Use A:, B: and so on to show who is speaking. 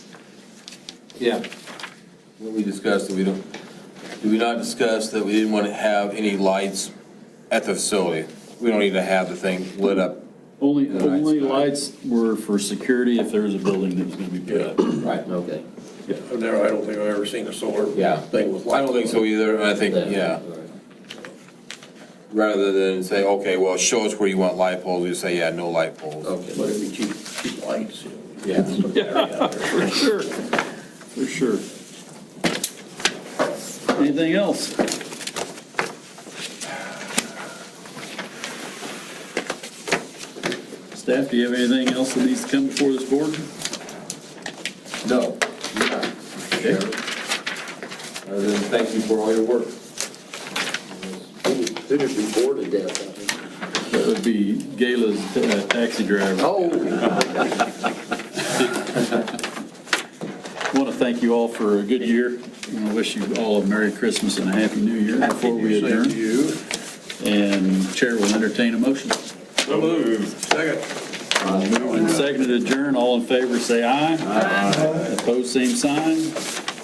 A: Yeah.
B: When we discussed that we don't, do we not discuss that we didn't want to have any lights at the facility? We don't need to have the thing lit up.
C: Only,
B: The lights
C: only
B: go out.
C: lights were for security if there was a building that was gonna be put up.
B: Right.
A: Okay.
D: There, I don't think I've ever seen a solar
B: Yeah.
D: thing with lights.
B: I don't think so either, and I think, yeah, rather than say, okay, well, show us where you want light poles, you say, yeah, no light poles.
D: But it'd be cheap, cheap lights.
B: Yeah.
C: For sure, for sure. Anything else? Staff, do you have anything else that needs to come before this board?
B: No. you're not.
C: Okay.
B: Other than thank you for all your work.
D: They'd just be bored to death.
C: That would be Gala's uh, taxi driver.
D: Oh.
C: I want to thank you all for a good year. and I wish you all a Merry Christmas and a Happy New Year before we adjourn.
D: You.
C: And Chair will entertain a motion. Uh,
D: So moved. Second.
C: Moved and seconded to adjourn, all in favor, say aye. Aye. Opposed, same sign.